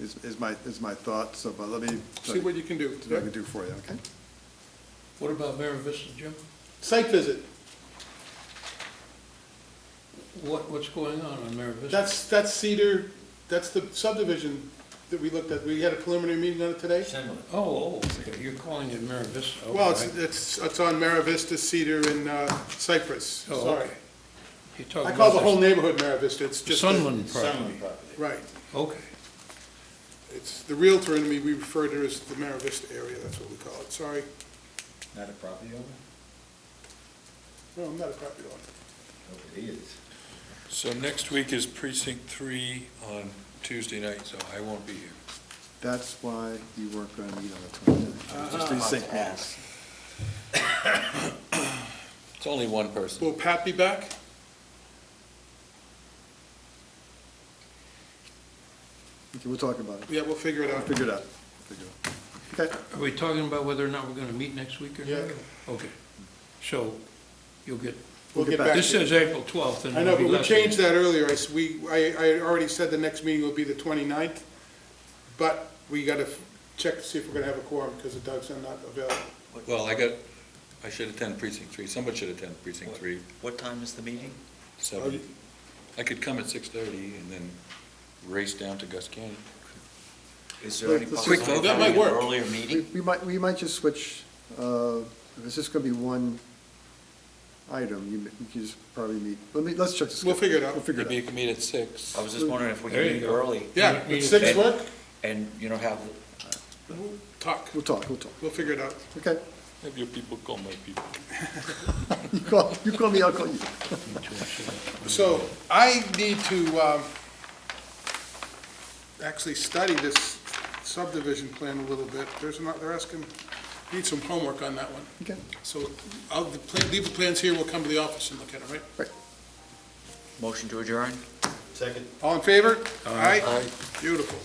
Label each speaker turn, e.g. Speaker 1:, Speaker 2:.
Speaker 1: is, is my, is my thought, so, but let me.
Speaker 2: See what you can do.
Speaker 1: See what I can do for you, okay?
Speaker 3: What about Mary Vista, Jim?
Speaker 2: Site visit,
Speaker 3: What, what's going on on Mary Vista?
Speaker 2: that's, that's Cedar, that's the subdivision that we looked at, we had a preliminary meeting on it today.
Speaker 3: Oh, oh, okay, you're calling it Mary Vista.
Speaker 2: Well,
Speaker 3: okay.
Speaker 2: it's, it's, it's on Mara Vista, Cedar, and uh, Cypress,
Speaker 3: Oh,
Speaker 2: sorry.
Speaker 3: okay. You're
Speaker 2: I
Speaker 3: talking
Speaker 2: call the
Speaker 3: about
Speaker 2: whole neighborhood Oh, Mara Vista, it's just. the-
Speaker 3: Sunland property,
Speaker 2: Right,
Speaker 3: okay.
Speaker 2: it's, the Realtor in me, we refer to as the Mara Vista area, that's what we call it, sorry.
Speaker 4: Not a property owner?
Speaker 2: No, I'm not a property owner.
Speaker 4: Nobody is.
Speaker 5: So next week is precinct three on Tuesday night, so I won't be here.
Speaker 1: That's why you weren't gonna meet on the 29th. Just resync meetings.
Speaker 5: It's only one person.
Speaker 2: Will Pat be back?
Speaker 1: Okay, we'll talk about it.
Speaker 2: Yeah, we'll figure it
Speaker 1: I'll
Speaker 2: out.
Speaker 1: figure it out. Figure it out. Okay,
Speaker 3: Are we talking about whether or not we're gonna meet next week or not?
Speaker 2: Yeah.
Speaker 3: Okay, so you'll get,
Speaker 2: We'll get back
Speaker 3: this
Speaker 2: to you.
Speaker 3: says April twelfth and
Speaker 2: I know,
Speaker 3: it'll be
Speaker 2: but we
Speaker 3: less
Speaker 2: changed
Speaker 3: than.
Speaker 2: that earlier, I, s- we, I, I already said the next meeting will be the 29th, but we gotta f- check to see if we're gonna have a quorum, because the Doug's are not available.
Speaker 5: Well, I got, I should attend precinct three. Somebody should attend precinct three,
Speaker 6: What time is the meeting?
Speaker 2: Oh,
Speaker 5: seven.
Speaker 2: you-
Speaker 5: I could come at six thirty and then race down to Gus Canyon.
Speaker 6: Is there any
Speaker 1: Quick
Speaker 6: possibility
Speaker 5: vote.
Speaker 6: of
Speaker 2: That
Speaker 6: having
Speaker 2: might
Speaker 6: an
Speaker 2: work.
Speaker 6: earlier
Speaker 1: we,
Speaker 6: meeting?
Speaker 1: we might, we might just switch, uh, if it's just gonna be one item, you, you can just probably meet, let me, let's check this.
Speaker 2: We'll figure it out.
Speaker 1: We'll figure
Speaker 5: Maybe you
Speaker 1: it out.
Speaker 5: can meet at six.
Speaker 6: I was just wondering if we
Speaker 3: There
Speaker 6: could
Speaker 3: you
Speaker 6: meet
Speaker 3: go.
Speaker 6: early
Speaker 2: Yeah,
Speaker 3: Me- me
Speaker 2: would six
Speaker 6: too.
Speaker 2: work,
Speaker 6: and, you know, have,
Speaker 2: We'll talk,
Speaker 1: We'll talk, we'll talk,
Speaker 2: we'll figure it out.
Speaker 1: okay?
Speaker 5: Have your people call my people.
Speaker 1: You call, you call me, I'll call you.
Speaker 2: So I need to um, actually study this subdivision plan a little bit. There's not, they're asking, need some homework on that one.
Speaker 1: Okay,
Speaker 2: So I'll the pla- leave the plans here, we'll come to the office and look at it, right?
Speaker 6: motion to adjourn?
Speaker 2: All in favor? Aye. Beautiful.